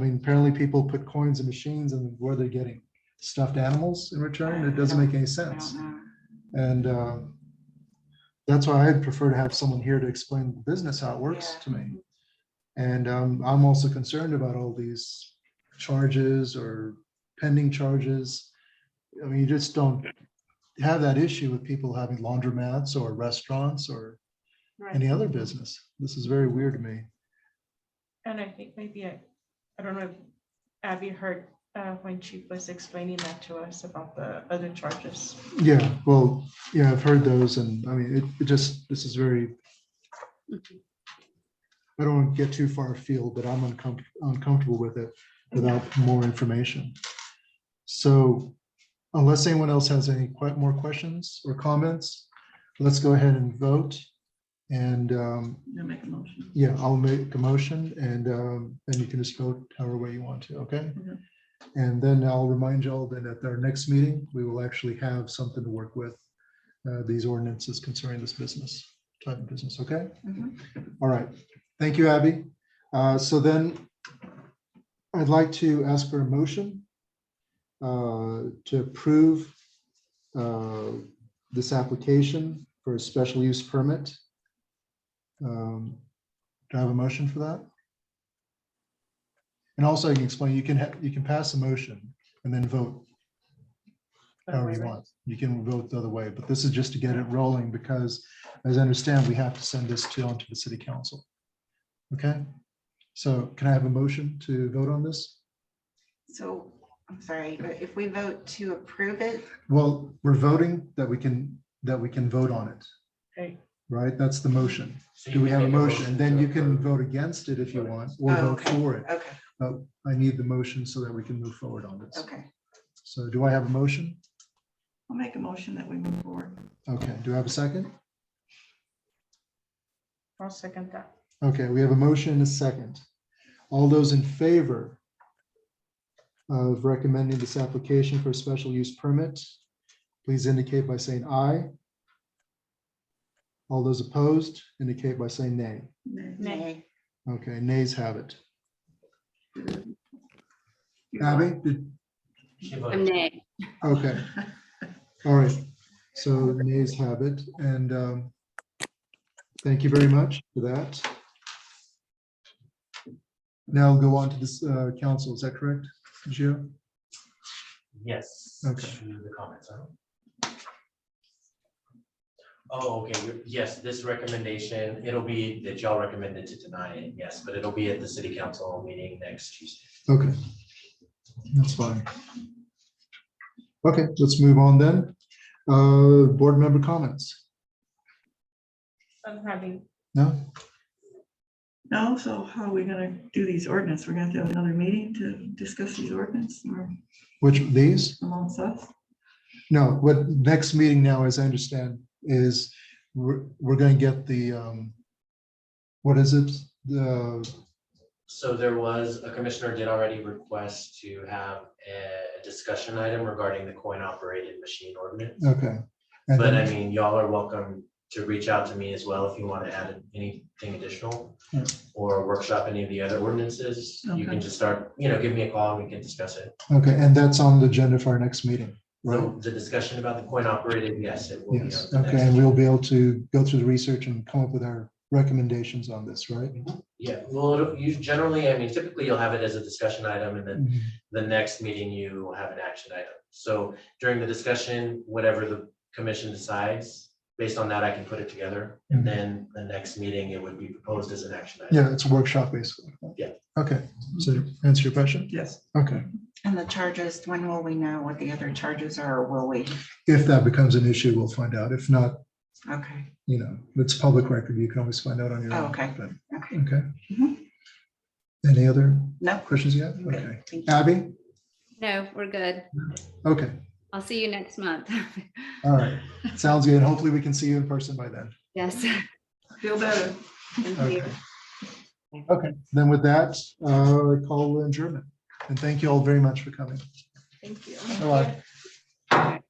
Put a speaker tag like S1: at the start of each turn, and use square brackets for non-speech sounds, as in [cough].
S1: I mean, apparently people put coins in machines and where they're getting stuffed animals in return. It doesn't make any
S2: I
S1: sense.
S2: don't know.
S1: And uh, that's why I'd prefer to have someone here to explain the business, how it works
S2: Yeah.
S1: to me. And um, I'm also concerned about all these charges or pending charges. I mean, you just don't have that issue with people having laundromats or restaurants or
S2: Right.
S1: any other business. This is very weird to me.
S2: And I think maybe, I I don't know, if Abby heard uh, when she was explaining that to us about the other charges.
S1: Yeah, well, yeah, I've heard those and I mean, it, it just, this is very. I don't want to get too far afield, but I'm uncomfortable, uncomfortable with it without more information. So unless anyone else has any que- more questions or comments, let's go ahead and vote. And um,
S2: You'll make a motion.
S1: yeah, I'll make a motion and, um, and you can just vote however way you want to, okay?
S2: Mhm.
S1: And then I'll remind y'all that at our next meeting, we will actually have something to work with, uh, these ordinances concerning this business, type of business, okay?
S2: Mm-hmm.
S1: All right, thank you, Abby. Uh, so then I'd like to ask for a motion uh, to approve uh, this application for a special use permit. Um, Do I have a motion for that? And also you can explain, you can, ha- you can pass a motion and then vote however you want. You can vote the other way, but this is just to get it rolling because as I understand, we have to send this to, onto the city council. Okay, so can I have a motion to vote on this?
S3: So, I'm sorry, but if we vote to approve it,
S1: Well, we're voting that we can, that we can vote on it,
S2: Okay,
S1: right? That's the motion.
S4: So
S1: Do we have a
S4: make
S1: motion? And then
S4: to
S1: you can
S4: approve.
S1: vote against it if you want or
S3: Oh,
S1: vote
S3: okay.
S1: for it.
S3: okay,
S1: But I need the motion so that we can move forward on this.
S3: okay.
S1: So do I have a motion?
S3: I'll make a motion that we move forward.
S1: Okay, do I have a second?
S2: I'll second that.
S1: Okay, we have a motion and a second. All those in favor of recommending this application for a special use permit, please indicate by saying aye. All those opposed indicate by saying nay.
S3: Nay.
S1: Okay, nays have it.
S3: You're
S1: Abby, did-
S4: She
S5: A
S4: voted.
S5: nay.
S1: okay, all right. So nays have it, and um, thank you very much for that. Now go on to this uh, council, is that correct, Gio?
S4: Yes.
S1: Okay.
S4: To the comments, huh? Oh, okay, you're- yes, this recommendation, it'll be that y'all recommended to deny it, yes, but it'll be at the city council meeting next Tuesday.
S1: Okay. That's fine. Okay, let's move on then. Uh, board member comments?
S2: I'm having,
S1: No?
S3: No, so how are we gonna do these ordinance? We're gonna have to have another meeting to discuss these ordinance or
S1: Which, these?
S3: amongst us?
S1: No, what next meeting now, as I understand, is we're, we're gonna get the, um, what is it? The,
S4: So there was, a commissioner did already request to have a discussion item regarding the coin operated machine ordinance.
S1: okay. And
S4: But I
S1: then,
S4: mean, y'all are welcome to reach out to me as well if you want to add anything additional
S1: Yeah.
S4: or workshop any of the other ordinances. You
S3: Okay.
S4: can just start, you know, give me a call and we can discuss it.
S1: okay, and that's on the agenda for our next meeting, right?
S4: So the discussion about the coin operated, yes, it will be.
S1: Yes,
S4: on the
S1: okay,
S4: next-
S1: and we'll be able to go through the research and come up with our recommendations on this, right?
S4: Yeah, well, it'll- you generally, I mean, typically you'll have it as a discussion item and then
S1: Mhm.
S4: the next meeting you will have an action item. So during the discussion, whatever the commission decides, based on that, I can put it together.
S1: Mhm.
S4: And then the next meeting, it would be proposed as an action item.
S1: Yeah, it's a workshop basically.
S4: Yeah.
S1: Okay, so to answer your question?
S3: Yes.
S1: Okay,
S3: And the charges, when will we know what the other charges are? or Will we?
S1: if that becomes an issue, we'll find out. If not,
S3: Okay,
S1: you know, it's public record, you can always find out on your
S3: Oh,
S1: own.
S3: okay.
S1: but-
S3: okay.
S1: Okay.
S3: Mhm.
S1: Any other
S3: No.
S1: questions yet?
S3: I'm good.
S1: Okay.
S3: Thank you.
S1: Abby?
S5: No, we're good.
S1: Okay,
S5: I'll see you next month. [laughs]
S1: all right. Sounds good. Hopefully we can see you in person by then.
S5: Yes.
S3: Feel better.
S5: Thank you.
S1: Okay. Okay, then with that, uh, I call adjournment. And thank you all very much for coming.
S2: thank you.
S1: Bye-bye.